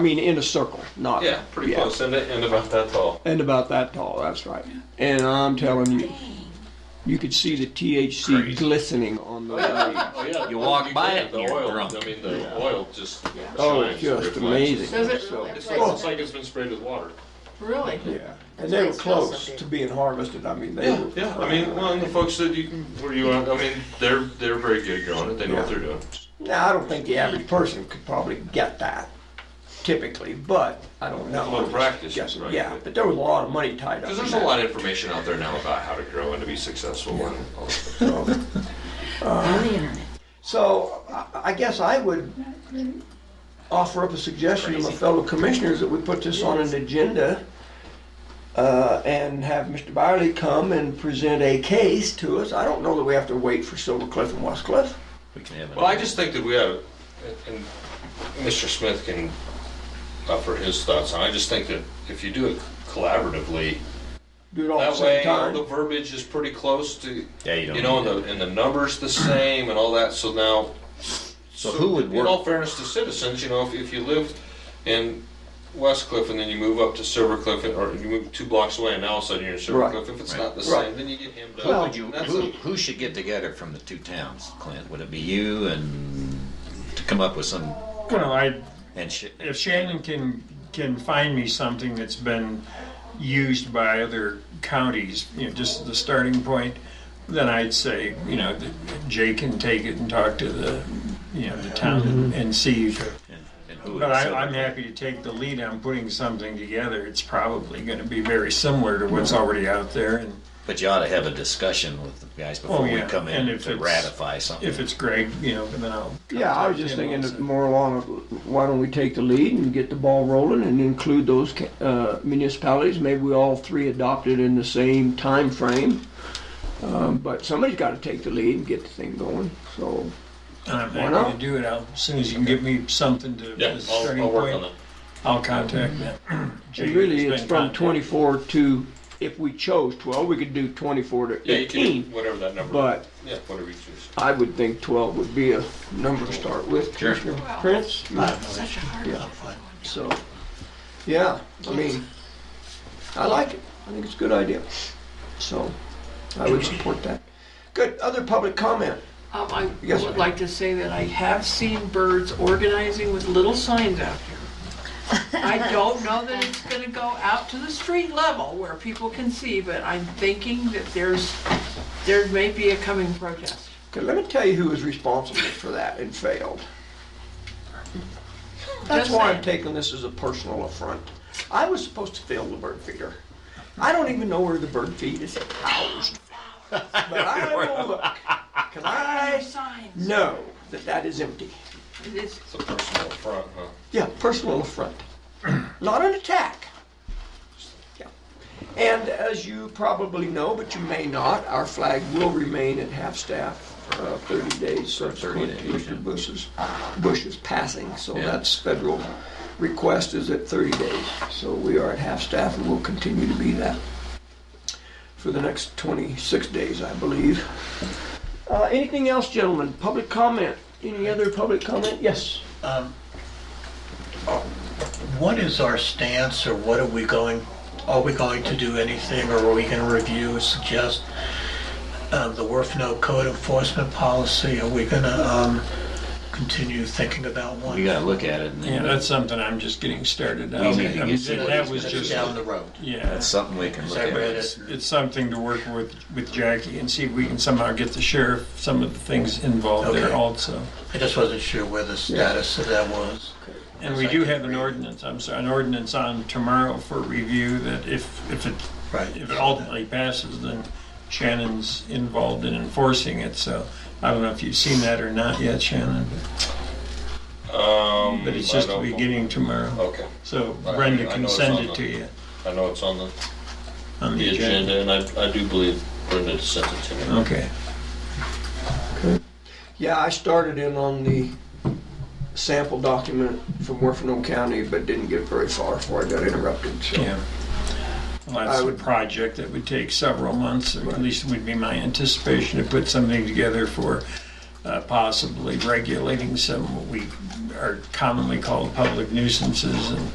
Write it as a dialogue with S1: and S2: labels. S1: I mean, in a circle, not.
S2: Yeah, pretty close, and, and about that tall.
S1: And about that tall, that's right. And I'm telling you, you could see the THC
S3: Crazy.
S1: glistening on the leaves.
S2: Oh, yeah.
S3: You walk by it
S2: The
S3: and you're
S2: oil,
S3: drunk.
S2: I mean, the oil just shines.
S1: Oh, it's just
S2: reflects.
S1: amazing.
S4: Does it
S1: So-
S4: really?
S2: It's like, it's like it's been sprayed with water.
S4: Really?
S1: Yeah, and they were close to being harvested. I mean, they
S2: Yeah,
S1: were.
S2: yeah. I mean, well, and the folks that you where you are, I mean, they're they're very good growing it. They know what they're doing.
S1: Now, I don't think the average person could probably get that typically, but I don't know.
S2: A little practice,
S1: Yes,
S2: right.
S1: Yeah, but there was a lot of money tied up.
S2: Because there's a lot of information out there now about how to grow and to be successful. And all that.
S1: of.
S5: on the internet.
S1: So I- I guess I would offer up a suggestion to my fellow commissioners that we put this on an agenda uh, and have Mr. Byerly come and present a case to us. I don't know that we have to wait for Silver Cliff and West Cliff.
S3: We can have it.
S2: Well, I just think that we have, and Mr. Smith can offer his thoughts on. it. I just think that if you do it collaboratively,
S1: Do it all at the
S2: that
S1: same
S2: way all the
S1: time.
S2: verbiage is pretty close to
S3: Yeah, you don't
S2: you know, and
S3: need
S2: the and the numbers the same and all that. So now
S3: So who would
S2: In all
S3: work?
S2: fairness to citizens, you know, if, if you lived in West Cliff and then you move up to Silver Cliff, or you move two blocks away and now all of a sudden you're in Silver
S1: Right.
S2: Cliff, if it's
S3: Right.
S2: not the
S1: Right.
S2: same, then you get hemmed up.
S3: Who would you,
S2: That's
S3: who,
S2: a-
S3: who should get together from the two towns, Clint? Would it be you and to come up with some,
S6: Well, I,
S3: and sh-
S6: if Shannon can, can find me something that's been used by other counties, you know, just the starting point, then I'd say, you know, that Jay can take it and talk to the, you know, the town
S1: Mm-hmm.
S6: and- and see. if-
S3: and, and who would
S6: But I,
S3: sell
S6: I'm
S3: it?
S6: happy to take the lead on putting something together. It's probably gonna be very similar to what's
S1: Mm-hmm.
S6: already out there and
S3: But you ought to have a discussion with the guys before
S6: Oh,
S3: we
S6: yeah.
S3: come in
S6: And if
S3: to
S6: it's-
S3: ratify something.
S6: if it's Greg, you know, then I'll.
S1: Yeah, I was
S6: contact
S1: just
S6: him
S1: thinking
S6: also.
S1: that more along, of, why don't we take the lead and get the ball rolling and include those ca- uh, municipalities? Maybe we all three adopted in the same time frame. Um, But somebody's got to take the lead and get the thing going, so.
S6: And I'm
S1: Why not?
S6: happy to do it. I'll- As soon as you can give me something to,
S2: Yeah,
S6: as a
S2: I'll,
S6: starting
S2: I'll work on
S6: point,
S2: that.
S6: I'll contact them.
S1: And really,
S6: Jay has
S1: it's
S6: been
S1: from
S6: contacted.
S1: 24 to, if we chose 12, we could do 24 to
S2: Yeah, you can,
S1: 18.
S2: do whatever that number.
S1: But
S2: Yeah, whatever you choose.
S1: I would think 12 would be a number to start with,
S3: Sure.
S1: Commissioner Prince.
S5: Such a hard
S1: Yeah. So, yeah, I mean, I like it. I think it's a good idea. So, I would support that. Good, other public comment?
S4: Um, I
S1: Yes,
S4: would
S1: ma'am.
S4: like to say that I have seen birds organizing with little signs out here. I don't know that it's gonna go out to the street level where people can see, but I'm thinking that there's, there may be a coming protest.
S1: Okay, let me tell you who was responsible for that and failed. That's
S4: Just
S1: why I'm
S4: saying.
S1: taking this as a personal affront. I was supposed to fill the bird feeder. I don't even know where the bird feed is housed. But I will look, 'cause I
S4: Signs.
S1: know that that is empty.
S4: It is-
S2: It's a personal affront, huh?
S1: Yeah, personal affront, not an attack. Yeah. And as you probably know, but you may not, our flag will remain at half-staff for uh, 30 days subsequent to
S3: days, yeah.
S1: Mr. Bush's, Bush's passing. So
S3: Yeah.
S1: that's federal request is at 30 days. So we are at half-staff and will continue to be that for the next 26 days, I believe. Uh, Anything else, gentlemen? Public comment? Any other public comment? Yes?
S7: What is our stance, or what are we going, are we going to do anything, or are we going to review or suggest um, the Werfno code enforcement policy? Are we going to continue thinking about one?
S3: We gotta look at it and
S6: Yeah,
S3: then
S6: that's something I'm just getting started on.
S3: We need to
S6: I
S3: get
S6: mean, that-
S3: somebody
S6: That was
S3: that's
S6: just,
S7: Down the road.
S6: yeah,
S3: that's something we can look
S7: I
S3: at.
S7: read it.
S6: it's something to work with, with Jackie and see if we can somehow get the sheriff, some of the things involved there
S7: Okay.
S6: also.
S7: I just wasn't sure where the status of that was.
S6: And we do have an ordinance, I'm sorry, an ordinance on tomorrow for review that if, if it,
S7: Right.
S6: if it ultimately passes, then Shannon's involved in enforcing it, so I don't know if you've seen that or not yet, Shannon,
S2: Um,
S6: but it's
S2: I
S6: just the
S2: don't-
S6: beginning tomorrow.
S2: Okay,
S6: So
S2: I-
S6: Brenda
S2: I
S6: can
S2: know it's
S6: send
S2: on
S6: it
S2: the-
S6: to you
S2: I know it's on the,
S6: on
S2: the agenda, and I, I do believe Brenda sent it to me.
S6: Okay.
S1: Yeah, I started in on the sample document from Werfenum County, but didn't get very far before I got interrupted, so.
S6: Yeah. Well, that's
S1: I
S6: a
S1: would-
S6: project that would take several months, or at least would be my anticipation to put something together for uh, possibly regulating some, what we are commonly called public nuisances and